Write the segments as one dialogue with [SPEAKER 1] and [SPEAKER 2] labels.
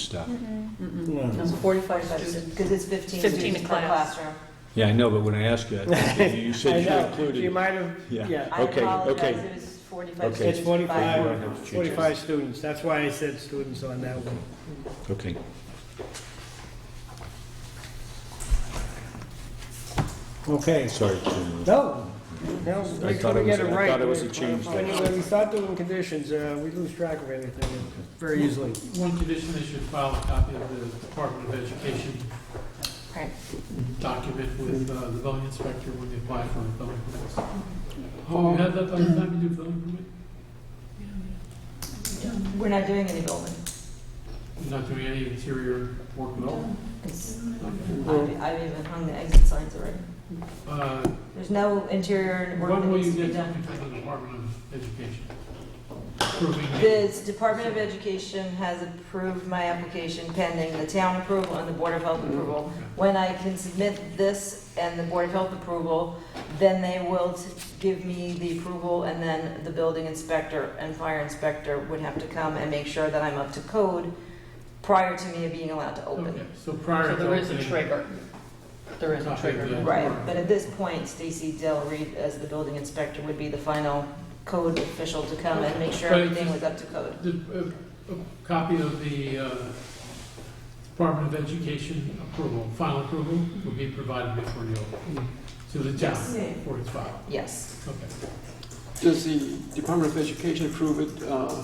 [SPEAKER 1] stuff.
[SPEAKER 2] No.
[SPEAKER 3] It's 45 minutes, because it's 15
[SPEAKER 4] 15
[SPEAKER 3] students per
[SPEAKER 4] class.
[SPEAKER 3] classroom.
[SPEAKER 1] Yeah, I know, but when I asked you, I think you you
[SPEAKER 2] I
[SPEAKER 1] said you
[SPEAKER 2] know.
[SPEAKER 1] included.
[SPEAKER 2] You
[SPEAKER 1] it.
[SPEAKER 2] might have,
[SPEAKER 1] Yeah.
[SPEAKER 2] yeah.
[SPEAKER 3] I
[SPEAKER 1] Okay, okay.
[SPEAKER 3] apologize, it was 45
[SPEAKER 1] Okay.
[SPEAKER 3] students.
[SPEAKER 2] It's
[SPEAKER 1] Five. You don't have
[SPEAKER 2] 45,
[SPEAKER 1] teachers.
[SPEAKER 2] 45 students, that's why I said students on that one.
[SPEAKER 1] Okay.
[SPEAKER 2] Okay.
[SPEAKER 1] Sorry. Jim.
[SPEAKER 2] No,
[SPEAKER 1] I
[SPEAKER 2] no, we
[SPEAKER 1] thought it
[SPEAKER 2] couldn't
[SPEAKER 1] was-
[SPEAKER 2] get it
[SPEAKER 1] I
[SPEAKER 2] right.
[SPEAKER 1] thought it was a change
[SPEAKER 2] When
[SPEAKER 1] there.
[SPEAKER 2] when we start doing conditions, uh, we lose track of everything very easily.
[SPEAKER 5] One condition is you file a copy of the Department of Education
[SPEAKER 4] Right.
[SPEAKER 5] document with uh, the building inspector when they apply for a building permit. Do you Oh, have that by the time you do building permit?
[SPEAKER 3] We're not doing any building.
[SPEAKER 5] You're Not doing any interior work at all?
[SPEAKER 3] It's-
[SPEAKER 2] Well-
[SPEAKER 3] I've I've even hung the exit signs already.
[SPEAKER 5] Uh,
[SPEAKER 3] There's no interior work that
[SPEAKER 5] When will you
[SPEAKER 3] needs to be
[SPEAKER 5] get
[SPEAKER 3] done.
[SPEAKER 5] something from the Department of Education? Proving that-
[SPEAKER 3] The Department of Education has approved my application pending the town approval and the Board of Health approval. When I can submit this and the Board of Health approval, then they will t- give me the approval, and then the building inspector and fire inspector would have to come and make sure that I'm up to code prior to me being allowed to
[SPEAKER 5] Okay,
[SPEAKER 3] open.
[SPEAKER 5] so prior
[SPEAKER 4] So
[SPEAKER 5] to.
[SPEAKER 4] there is a
[SPEAKER 5] opening-
[SPEAKER 4] trigger. There is a trigger.
[SPEAKER 3] Right, but at this point, Stacy Del Reed, as the building inspector, would be the final code official to come and make sure
[SPEAKER 5] But-
[SPEAKER 3] everything was up to code.
[SPEAKER 5] The, uh, a copy of the uh, Department of Education approval, final approval will be provided before you open to the town
[SPEAKER 3] Yes.
[SPEAKER 5] for its file.
[SPEAKER 3] Yes,
[SPEAKER 5] Okay.
[SPEAKER 6] Does the Department of Education approve it? uh,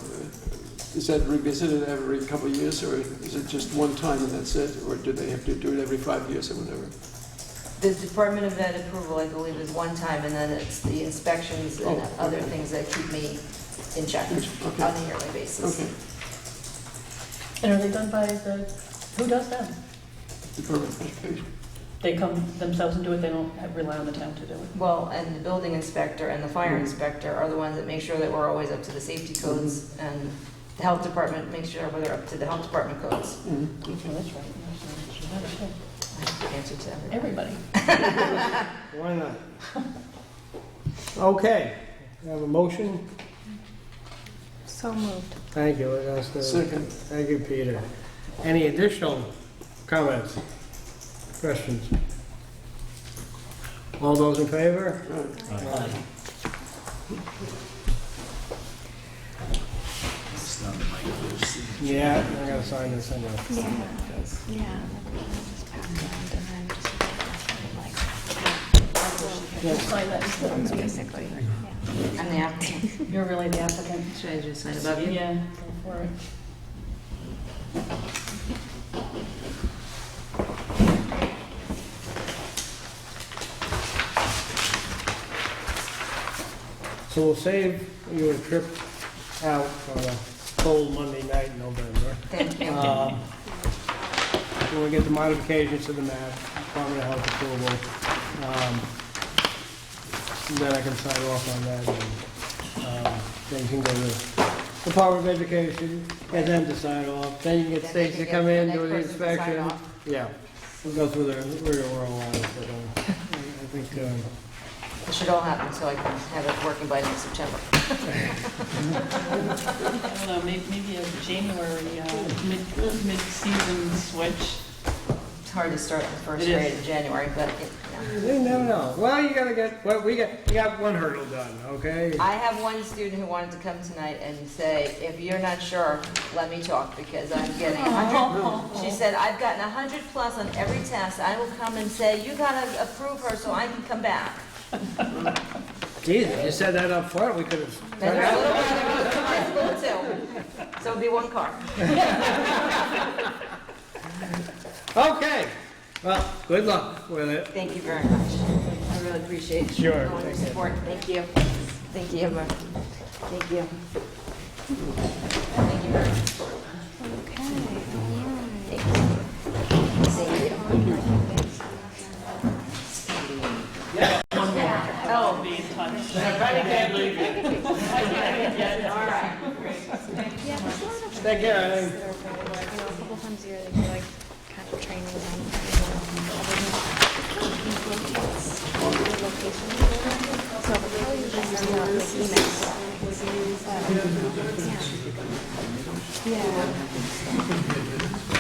[SPEAKER 6] Is that revisited every couple of years, or is it just one time and that's it? Or do they have to do it every five years or whatever?
[SPEAKER 3] the Department of Ed approval, I believe, is one time, and then it's the inspections and
[SPEAKER 6] Oh,
[SPEAKER 3] other
[SPEAKER 6] okay.
[SPEAKER 3] things that keep me in check
[SPEAKER 6] Okay.
[SPEAKER 3] on a yearly basis.
[SPEAKER 6] Okay,
[SPEAKER 4] And are they done by the, who does that?
[SPEAKER 6] Department of Education.
[SPEAKER 4] They come themselves and do it, they don't have- rely on the town to do it?
[SPEAKER 3] Well, and the building inspector and the fire inspector are the ones that make sure that we're always up to the safety codes, and the health department makes sure we're up to the health department codes.
[SPEAKER 6] Mhm,
[SPEAKER 4] Oh,
[SPEAKER 6] okay.
[SPEAKER 4] that's right. That's right.
[SPEAKER 3] I have to Answer to everybody.
[SPEAKER 4] Everybody.
[SPEAKER 2] Why not? Okay, I have a motion.
[SPEAKER 7] So moved.
[SPEAKER 2] Thank you, that's the-
[SPEAKER 6] Second,
[SPEAKER 2] thank you, Peter. Any additional comments, questions? All those in favor?
[SPEAKER 6] right.
[SPEAKER 2] Yeah, I gotta sign this anyway.
[SPEAKER 7] Yeah. Yeah. Just pass it around and then just-
[SPEAKER 4] We'll sign that.
[SPEAKER 7] Basically, yeah.
[SPEAKER 3] I'm the applicant.
[SPEAKER 4] You're really the applicant.
[SPEAKER 3] Should I just sign above you?
[SPEAKER 4] Yeah, go for it.
[SPEAKER 2] So we'll save you a trip out on a cold Monday night in November.
[SPEAKER 3] Thank you.
[SPEAKER 2] Um, When we get the modifications to the map, Department of Health approval, um, then I can sign off on that and um, then you can go to Department of Education, get them to sign off, then you can get
[SPEAKER 3] Then they
[SPEAKER 2] Stacy
[SPEAKER 3] can get
[SPEAKER 2] to come in,
[SPEAKER 3] next
[SPEAKER 2] do the
[SPEAKER 3] person to sign
[SPEAKER 2] inspection.
[SPEAKER 3] off.
[SPEAKER 2] Yeah, we'll go through the, we're, we're all on it, but um, I I think, um,
[SPEAKER 3] It should all happen so I can have it working by next September.
[SPEAKER 4] I don't know, may- maybe a January, uh, mid- mid-season switch.
[SPEAKER 3] It's hard to start the first
[SPEAKER 4] It is.
[SPEAKER 3] grade in January, but it- yeah.
[SPEAKER 2] They never know. Well, you gotta get, well, we got, we got one hurdle done, okay?
[SPEAKER 3] I have one student who wanted to come tonight and say, if you're not sure, let me talk because I'm getting a hundred. She said, I've gotten a hundred plus on every test. I will come and say, you gotta approve her so I can come back.
[SPEAKER 2] Geez, if you said that up front, we could have.
[SPEAKER 3] And her little brother was from high school too. So it'd be one car.
[SPEAKER 2] Okay, well, good luck with it.
[SPEAKER 3] Thank you very much. I really appreciate
[SPEAKER 2] Sure.
[SPEAKER 3] all your support. Thank you. Thank you, Emma. Thank you. Thank you very much.
[SPEAKER 7] Okay, all right.
[SPEAKER 3] Thank you. Oh,
[SPEAKER 4] I'll be in touch.
[SPEAKER 2] Take care, Eileen.
[SPEAKER 7] That are probably like, you know, a couple times a year they do like kind of training on different locations. So we'll probably usually send out this email. Yeah. Yeah.